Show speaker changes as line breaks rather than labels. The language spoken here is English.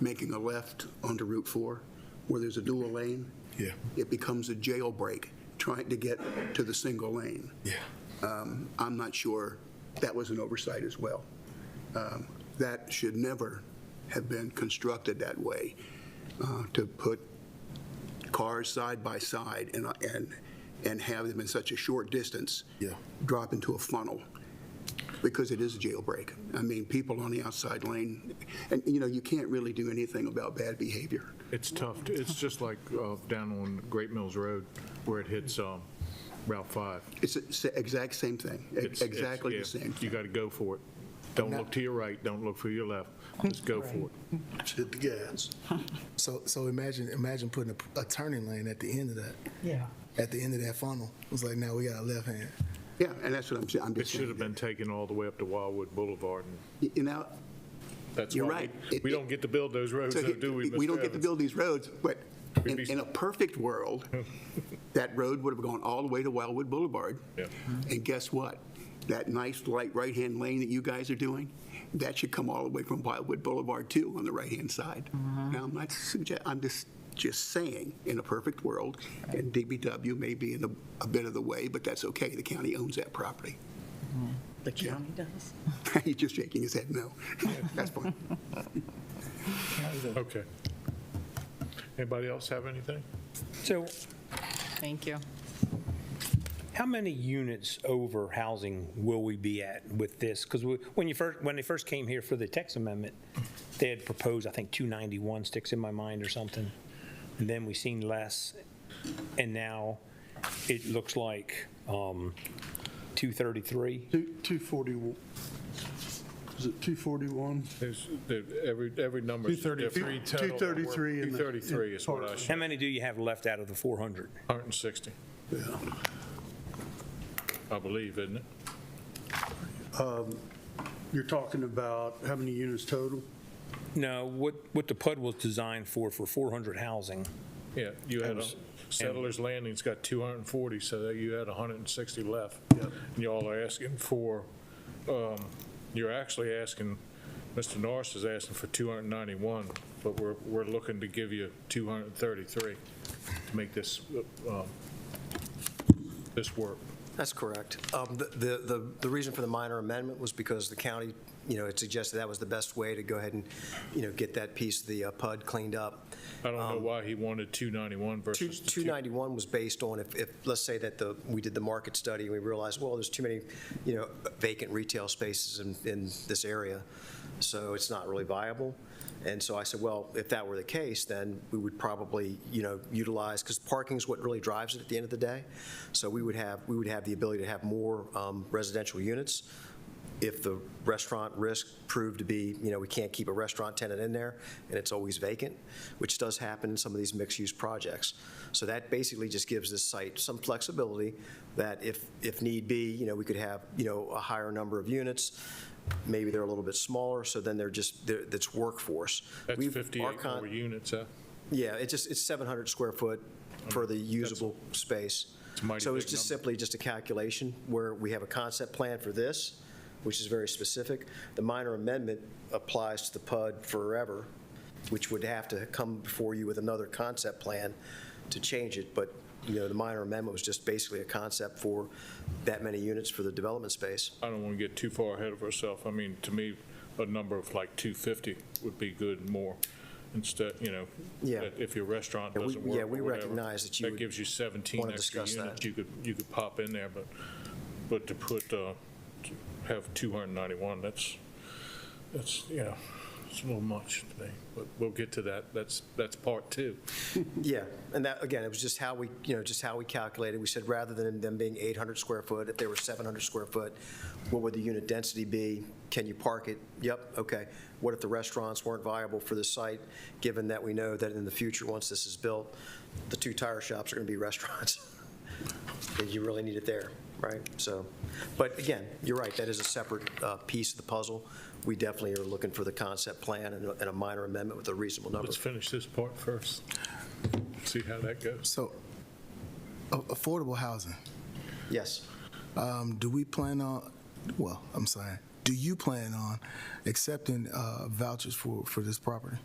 making a left onto Route 4, where there's a dual lane,
Yeah,
it becomes a jailbreak trying to get to the single lane.
yeah.
Um, I'm not sure that was an oversight as well. Um, That should never have been constructed that way, uh, to put cars side by side and, uh, and, and have them in such a short distance.
Yeah.
Drop into a funnel, because it is a jailbreak. I mean, people on the outside lane, and, you know, you can't really do anything about bad behavior.
It's tough. to- It's just like uh, down on Great Mills Road where it hits um, Route 5.
It's the s- exact same thing, e-
It's- it's-
exactly
yeah,
the same.
You got to go for it. Don't look to your right, don't look for your left. Just go for it.
Hit the gas.
So, so imagine, imagine putting a, a turning lane at the end of that,
Yeah.
at the end of that funnel. It's like now we got a left hand.
Yeah, and that's what I'm saying, I'm
It
just
should have
saying.
been taken all the way up to Wildwood Boulevard, and
You know,
that's
You're
why
right.
we-
It-
we
it-
don't get to build those roads,
So
though,
he-
Oh, do we, Mr.
We don't get to
Evans?
build these roads, but in,
We'd be-
in a perfect world, that road would have gone all the way to Wildwood Boulevard.
Yeah.
And guess what? That nice light right-hand lane that you guys are doing, that should come all the way from Wildwood Boulevard too, on the right-hand side. Now, I'm not suggest, I'm just, just saying, in a perfect world, and DBW may be in a, a bit of the way, but that's okay, the county owns that property.
The county does.
He's just shaking his head no. That's fine.
Okay. Anybody else have anything?
So
Thank you.
how many units over housing will we be at with this? Because when you first, when they first came here for the text amendment, they had proposed, I think, 291 sticks in my mind or something. And then we seen less. And now it looks like um, 233.
Two- 240, is it 241?
There's, there- every, every number is different.
233 total. 233 in the-
233 is what I
in-
How
should,
many do you have left out of the 400?
160, I believe, isn't it?
You're talking about how many units total?
No, what, what the PUD was designed for, for 400 housing.
Yeah, you had, a-
And-
Settlers Landing's got 240, so that you had 160 left. And y'all are asking for, um, you're actually asking, Mr. Norris is asking for 291, but we're, we're looking to give you 233 to make this, um, this work.
That's correct. Um, the- The the the reason for the minor amendment was because the county, you know, had suggested that was the best way to go ahead and, you know, get that piece of the uh, PUD cleaned up.
I don't know
Um,
why he wanted 291
Two-
versus the 291.
291 was based on if, if, let's say that the, we did the market study, and we realized, well, there's too many, you know, vacant retail spaces in, in this area, so it's not really viable. And so I said, well, if that were the case, then we would probably, you know, utilize, because parking's what really drives it at the end of the day. So we would have, we would have the ability to have more um, residential units, if the restaurant risk proved to be, you know, we can't keep a restaurant tenant in there, and it's always vacant, which does happen in some of these mixed-use projects. So that basically just gives this site some flexibility, that if, if need be, you know, we could have, you know, a higher number of units, maybe they're a little bit smaller, so then they're just, they're- that's workforce.
That's
We've- our
58
con-
more units, huh?
yeah, it just, it's 700 square foot for the usable space.
It's a mighty
So it's
big
just
number.
simply just a calculation where we have a concept plan for this, which is very specific. The minor amendment applies to the PUD forever, which would have to come before you with another concept plan to change it. But, you know, the minor amendment was just basically a concept for that many units for the development space.
I don't want to get too far ahead of ourselves. I mean, to me, a number of like 250 would be good more instead, you know,
Yeah.
that if your restaurant
Yeah, we-
doesn't work
yeah,
or
we
whatever,
recognize that you
That
would
gives you 17
wanna
extra
discuss
units
that.
you could, you could pop in there, but, but to put, uh, to have 291, that's, that's, you know, it's a little much to me, but we'll get to that. That's, that's part two.
Yeah, and that, again, it was just how we, you know, just how we calculated. We said rather than them being 800 square foot, if they were 700 square foot, what would the unit density be? Can you park it? Yep, okay. What if the restaurants weren't viable for the site, given that we know that in the future, once this is built, the two tire shops are going to be restaurants? And You really need it there, right? So, but again, you're right, that is a separate uh, piece of the puzzle. We definitely are looking for the concept plan and a- and a minor amendment with a reasonable number.
Let's finish this part first. See how that goes.
So a- affordable housing,
Yes.
um, do we plan on, well, I'm sorry, do you plan on accepting, uh, vouchers for, for this property?